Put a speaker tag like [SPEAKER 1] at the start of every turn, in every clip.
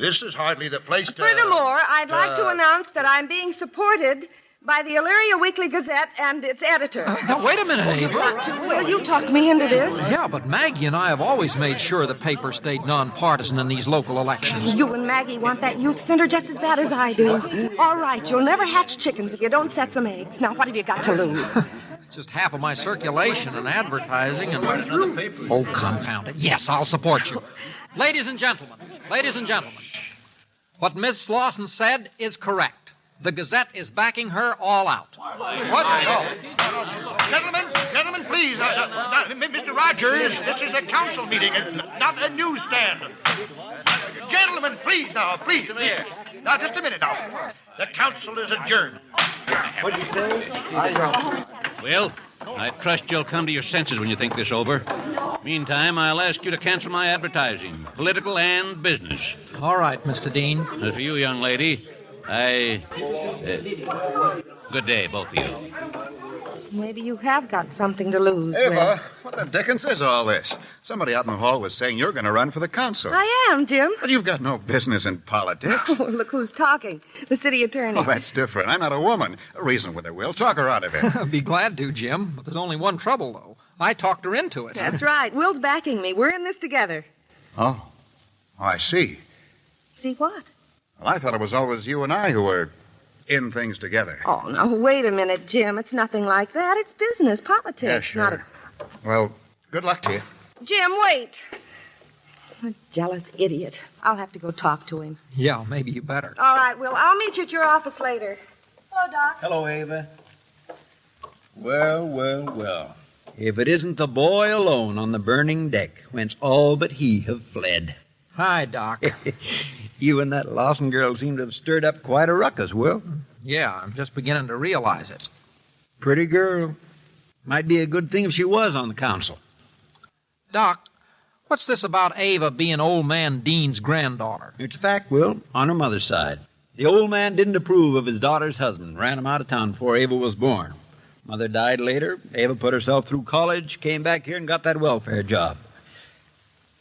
[SPEAKER 1] This is hardly the place to.
[SPEAKER 2] Furthermore, I'd like to
[SPEAKER 1] uh,
[SPEAKER 2] announce that I'm being supported by the Illyria Weekly Gazette and its editor.
[SPEAKER 3] Now, wait a minute, Ava.
[SPEAKER 2] Will you talk me into this?
[SPEAKER 3] Yeah, but Maggie and I have always made sure the paper stayed nonpartisan in these local elections.
[SPEAKER 2] You and Maggie want that youth center just as bad as I do. All right, you'll never hatch chickens if you don't set some eggs. Now, what have you got to lose?
[SPEAKER 3] Just half of my circulation and advertising and. Oh, confound it. Yes, I'll support you. ladies and gentlemen, ladies and gentlemen, what Miss Slauson said is correct. The Gazette is backing her all out.
[SPEAKER 1] What? No. Gentlemen, gentlemen, please. Uh, uh, uh, Mr. Rogers, this is a council meeting, and not a newsstand. Gentlemen, please now, please. please. Now, just a minute now. The council is adjourned.
[SPEAKER 4] Well, I trust you'll come to your senses when you think this over. Meantime, I'll ask you to cancel my advertising, political and business.
[SPEAKER 3] All right, Mr. Dean.
[SPEAKER 4] As for you, young lady, I. uh, good day, both of you.
[SPEAKER 2] Maybe you have got something to lose. Will.
[SPEAKER 5] Ava, what the dickens is all this? Somebody out in the hall was saying you're going to run for the council.
[SPEAKER 2] I am, Jim.
[SPEAKER 5] But you've got no business in politics.
[SPEAKER 2] Well, look who's talking. The city attorney.
[SPEAKER 5] Oh, that's different. I'm not a woman. Reason with her, Will. Talk her out of it.
[SPEAKER 3] I'd be glad to, Jim. But there's only one trouble, though. I talked her into it.
[SPEAKER 2] That's right. Will's backing me. We're in this together.
[SPEAKER 5] oh. oh, I see.
[SPEAKER 2] See what?
[SPEAKER 5] Well, I thought it was always you and I who were in things together.
[SPEAKER 2] Oh, now, wait a minute, Jim. It's nothing like that. It's business, politics.
[SPEAKER 5] yeah,
[SPEAKER 2] Not
[SPEAKER 5] sure.
[SPEAKER 2] a...
[SPEAKER 5] Well, good luck to you.
[SPEAKER 2] Jim, wait. I'm a jealous idiot. I'll have to go talk to him.
[SPEAKER 3] Yeah, maybe you better.
[SPEAKER 2] All right, Will. I'll meet you at your office later. Hello, Doc.
[SPEAKER 6] Hello, Ava. Well, well, well. If it isn't the boy alone on the burning deck, whence all but he have fled.
[SPEAKER 3] Hi, Doc.
[SPEAKER 6] You and that Lawson girl seem to have stirred up quite a ruckus, Will.
[SPEAKER 3] Yeah, I'm just beginning to realize it.
[SPEAKER 6] Pretty girl. Might be a good thing if she was on the council.
[SPEAKER 3] Doc, what's this about Ava being old man Dean's granddaughter?
[SPEAKER 6] It's a fact, Will, on her mother's side. The old man didn't approve of his daughter's husband, ran him out of town before Ava was born. Mother died later. Ava put herself through college, came back here, and got that welfare job.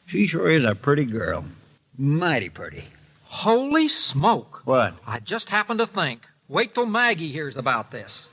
[SPEAKER 6] She sure is a pretty girl. Mighty pretty.
[SPEAKER 3] Holy smoke!
[SPEAKER 6] What?
[SPEAKER 3] I just happened to think. Wait till Maggie hears about this.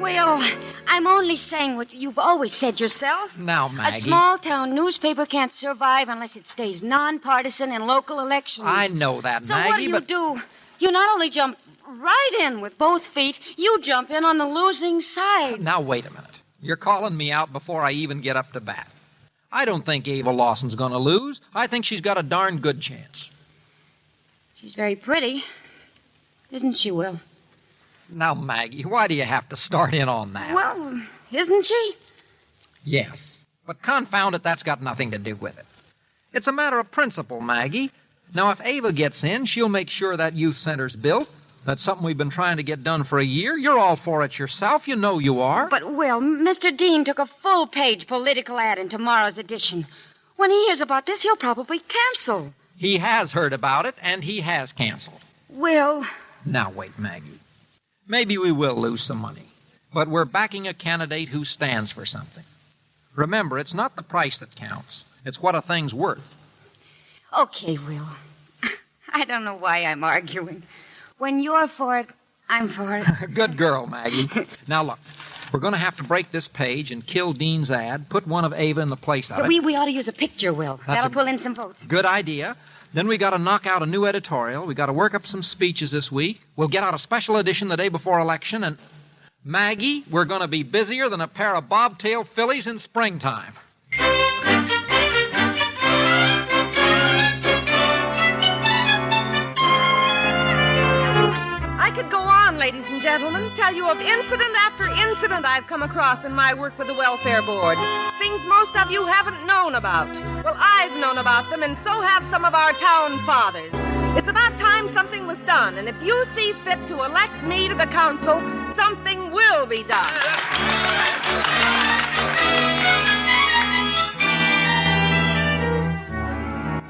[SPEAKER 7] Well, I'm only saying what you've always said yourself.
[SPEAKER 3] Now,
[SPEAKER 7] A
[SPEAKER 3] Maggie.
[SPEAKER 7] small town newspaper can't survive unless it stays nonpartisan in local elections.
[SPEAKER 3] I know that,
[SPEAKER 7] So
[SPEAKER 3] Maggie,
[SPEAKER 7] what do you
[SPEAKER 3] but
[SPEAKER 7] do? You not only jump right in with both feet, you jump in on the losing side.
[SPEAKER 3] now wait a minute. You're calling me out before I even get up to bat. I don't think Ava Lawson's going to lose. I think she's got a darn good chance.
[SPEAKER 7] She's very pretty, isn't she, Will?
[SPEAKER 3] Now, Maggie, why do you have to start in on that?
[SPEAKER 7] Well, isn't she?
[SPEAKER 3] Yes. But confound it, that's got nothing to do with it. It's a matter of principle, Maggie. Now, if Ava gets in, she'll make sure that youth center's built. That's something we've been trying to get done for a year. You're all for it yourself. You know you are.
[SPEAKER 7] But, Will, Mr. Dean took a full page political ad in tomorrow's edition. When he hears about this, he'll probably cancel.
[SPEAKER 3] he has heard about it, and he has canceled.
[SPEAKER 7] Will,
[SPEAKER 3] Now, wait, Maggie. Maybe we will lose some money, but we're backing a candidate who stands for something. Remember, it's not the price that counts, it's what a thing's worth.
[SPEAKER 7] Okay, Will. I don't know why I'm arguing. When you're for it, I'm for it.
[SPEAKER 3] Good girl, Maggie. Now look, we're going to have to break this page and kill Dean's ad. Put one of Ava in the place of
[SPEAKER 7] But
[SPEAKER 3] it.
[SPEAKER 7] we, we ought to use a picture, Will.
[SPEAKER 3] That's
[SPEAKER 7] That'll
[SPEAKER 3] a-
[SPEAKER 7] pull in some votes.
[SPEAKER 3] Good idea. Then we got to knock out a new editorial. We got to work up some speeches this week. We'll get out a special edition the day before election. And Maggie, we're going to be busier than a pair of bobtail fillies in springtime.
[SPEAKER 2] I could go on, ladies and gentlemen, tell you of incident after incident I've come across in my work with the Welfare Board. Things most of you haven't known about. Well, I've known about them, and so have some of our town fathers. It's about time something was done, and if you see fit to elect me to the council, something will be done.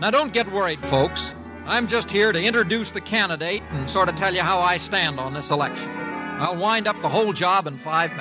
[SPEAKER 3] Now don't get worried, folks. I'm just here to introduce the candidate and sort of tell you how I stand on this election. I'll wind up the whole job in five minutes.